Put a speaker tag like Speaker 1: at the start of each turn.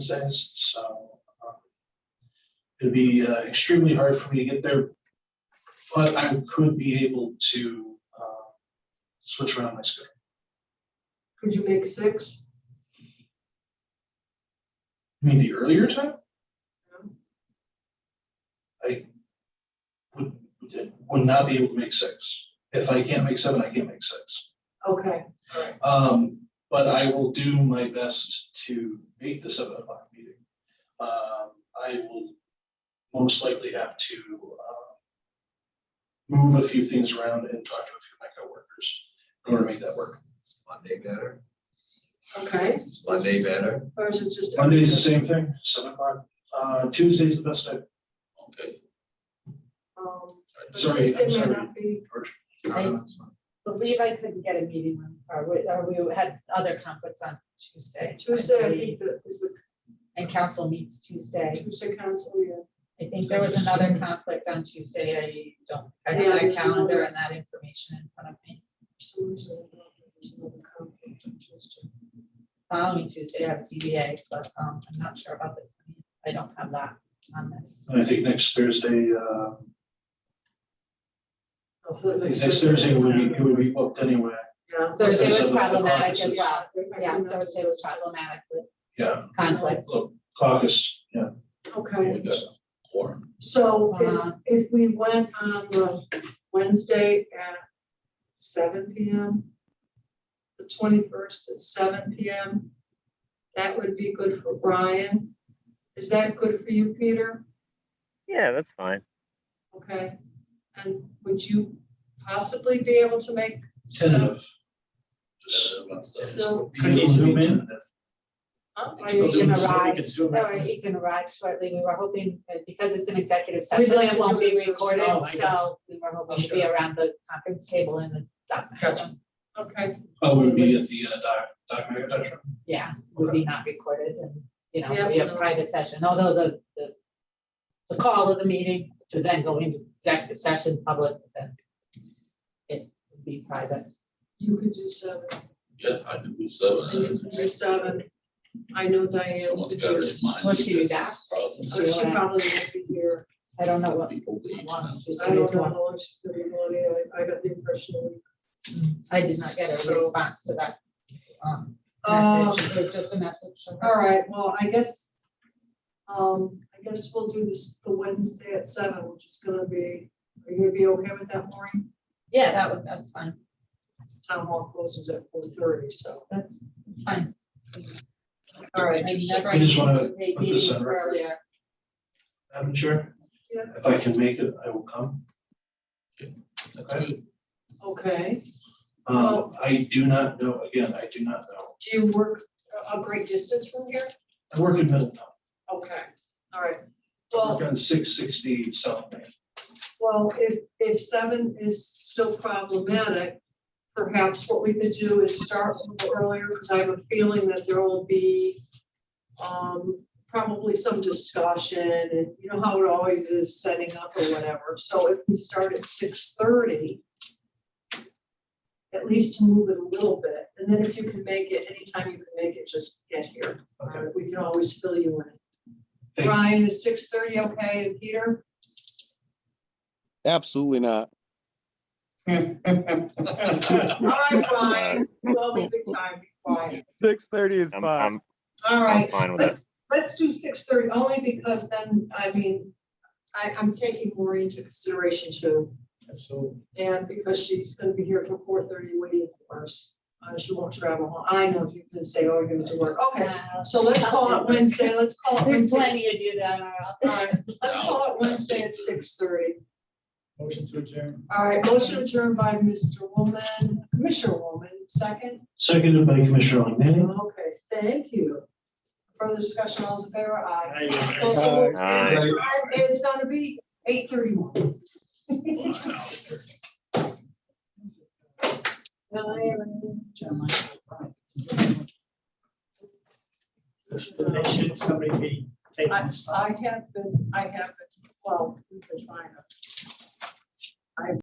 Speaker 1: says, so. uh, It'd be uh, extremely hard for me to get there, but I could be able to uh, switch around my schedule.
Speaker 2: Could you make six?
Speaker 1: I mean, the earlier time? I would, would not be able to make six. If I can't make seven, I can't make six.
Speaker 2: Okay,
Speaker 1: Um, but I will do my best to make the seven o'clock meeting. Um, I will most likely have to, uh, move a few things around and talk to a few of my coworkers in order to make that work.
Speaker 3: Is Monday better?
Speaker 2: okay,
Speaker 3: Is Monday better?
Speaker 2: or is it just?
Speaker 1: Monday's the same thing, seven o'clock. Uh, Tuesday's the best time.
Speaker 3: Okay.
Speaker 2: um, but
Speaker 1: Sorry,
Speaker 2: Tuesday
Speaker 1: I'm
Speaker 2: may
Speaker 1: sorry.
Speaker 2: not be-
Speaker 3: No, no, that's fine.
Speaker 4: believe I couldn't get a meeting, on- or we, or we had other conflicts on Tuesday. I
Speaker 2: Tuesday, I think
Speaker 4: believe,
Speaker 2: that is the
Speaker 4: And council meets Tuesday.
Speaker 2: Tuesday council, yeah.
Speaker 4: I think there was another conflict on Tuesday. I don't, I
Speaker 2: Yeah,
Speaker 4: have that
Speaker 2: there's
Speaker 4: calendar
Speaker 2: another-
Speaker 4: and that information in front of me.
Speaker 2: for some reason, I don't think there's another conflict on Tuesday.
Speaker 4: Following Tuesday, I have CBA, but, um, I'm not sure about the, I don't have that on this.
Speaker 1: And I think next Thursday, uh,
Speaker 2: Oh, so
Speaker 1: I
Speaker 2: that's
Speaker 1: think next
Speaker 2: next
Speaker 1: Thursday would be, it would be booked anyway.
Speaker 2: Yeah.
Speaker 4: Thursday
Speaker 1: Because
Speaker 4: was
Speaker 1: of the- the
Speaker 4: problematic as
Speaker 1: offices.
Speaker 4: well.
Speaker 2: I
Speaker 4: Yeah,
Speaker 2: can-
Speaker 4: Thursday was problematic with
Speaker 1: Yeah,
Speaker 4: conflicts.
Speaker 1: caucus, yeah.
Speaker 2: Okay,
Speaker 3: We got a quorum.
Speaker 2: so if,
Speaker 4: Uh-huh.
Speaker 2: if we went on the Wednesday at seven P M, the twenty-first at seven P M, that would be good for Brian. Is that good for you, Peter?
Speaker 5: Yeah, that's fine.
Speaker 2: Okay, and would you possibly be able to make? some-
Speaker 1: Tentative. Just-
Speaker 3: Uh, what's the-
Speaker 2: So.
Speaker 6: Could you zoom in?
Speaker 1: Tentative.
Speaker 2: huh?
Speaker 4: Are you gonna
Speaker 6: You
Speaker 4: arrive?
Speaker 6: could zoom in.
Speaker 4: Or he can arrive shortly. We were hoping, uh, because it's an executive
Speaker 2: We'd
Speaker 4: session,
Speaker 2: like
Speaker 4: it
Speaker 2: to do
Speaker 4: won't be
Speaker 2: it first.
Speaker 4: recorded,
Speaker 6: Oh, I got
Speaker 4: so we were hoping to be around the conference table in the dock.
Speaker 2: Gotcha. Okay,
Speaker 1: Oh, would it be at the, uh, doc, doc, doc, doc.
Speaker 4: Yeah, would be not recorded and, you know,
Speaker 2: Yeah.
Speaker 4: we have a private session, although the, the, the call of the meeting to then go into executive session, public, then it would be private.
Speaker 2: you could do seven,
Speaker 3: Yeah, I could do seven.
Speaker 2: you could do seven. I know Diane
Speaker 3: Someone's
Speaker 2: would
Speaker 3: got
Speaker 2: do.
Speaker 3: to remind.
Speaker 4: What's
Speaker 3: me
Speaker 4: she
Speaker 3: that
Speaker 4: back?
Speaker 3: problems.
Speaker 2: Oh, She probably won't be here.
Speaker 4: I don't know
Speaker 3: with
Speaker 4: what,
Speaker 3: People leave.
Speaker 4: one, she's
Speaker 2: I don't know
Speaker 4: one.
Speaker 2: how long she's gonna be going in. I, I got the impression. a week.
Speaker 4: I did not get a
Speaker 2: So-
Speaker 4: response to that, um,
Speaker 2: Um,
Speaker 4: message, it was just a message. from her.
Speaker 2: All right, well, I guess, um, I guess we'll do this the Wednesday at seven, which is gonna be, are you gonna be okay with that, Maureen?
Speaker 4: Yeah, that was, that's fine,
Speaker 2: Town hall closes at four thirty, so,
Speaker 4: that's, that's fine.
Speaker 2: all right.
Speaker 4: I never
Speaker 1: I just wanna
Speaker 4: anticipate
Speaker 1: put this
Speaker 4: meetings
Speaker 1: on record.
Speaker 4: earlier.
Speaker 1: Madam Chair?
Speaker 2: Yeah.
Speaker 1: If I can make it, I will come.
Speaker 3: That's good.
Speaker 2: Okay.
Speaker 1: Um, I do not know, again, I do not know.
Speaker 2: Do you work a a great distance from here?
Speaker 1: I work in Middletown.
Speaker 2: Okay, all right.
Speaker 1: I
Speaker 2: Well,
Speaker 1: work on six sixty South Main.
Speaker 2: well, if, if seven is still problematic, perhaps what we could do is start a little earlier, because I have a feeling that there will be um, probably some discussion, and you know how it always is setting up or whatever. So if we start at six thirty, at least to move it a little bit, and then if you can make it, anytime you can make it, just get here.
Speaker 1: Okay,
Speaker 2: Uh, We can always fill you in.
Speaker 1: Thank you.
Speaker 2: Brian, is six thirty okay, and Peter?
Speaker 7: Absolutely not.
Speaker 2: All right, Brian, well, we have good time, Brian.
Speaker 7: Six thirty is
Speaker 5: Uh, I'm,
Speaker 7: fine.
Speaker 5: I'm,
Speaker 2: All
Speaker 5: I'm
Speaker 2: right,
Speaker 5: fine with that.
Speaker 2: let's, let's do six thirty, only because then, I mean, I, I'm taking Maureen into consideration too.
Speaker 6: Absolutely.
Speaker 2: And because she's gonna be here till four thirty waiting for us, uh, she won't travel. home. I know you can say, oh, you're gonna do work, okay. So let's call it Wednesday, let's call it
Speaker 4: There's
Speaker 2: Wednesday.
Speaker 4: plenty of you down our
Speaker 2: All
Speaker 4: office.
Speaker 2: right, let's call it Wednesday at six thirty.
Speaker 6: Motion to adjourn.
Speaker 2: All right, motion adjourned by Mr. Woman, Commissioner Woman, second.
Speaker 1: seconded by Commissioner O'Malley.
Speaker 2: Okay, thank you. Further discussion, all those in favor, aye.
Speaker 6: Aye.
Speaker 2: Those opposed,
Speaker 5: Aye.
Speaker 2: aye. It's gonna be eight thirty-one.
Speaker 6: They should somebody be taking
Speaker 2: I,
Speaker 6: this?
Speaker 2: I have been, I have been, well, we've been trying to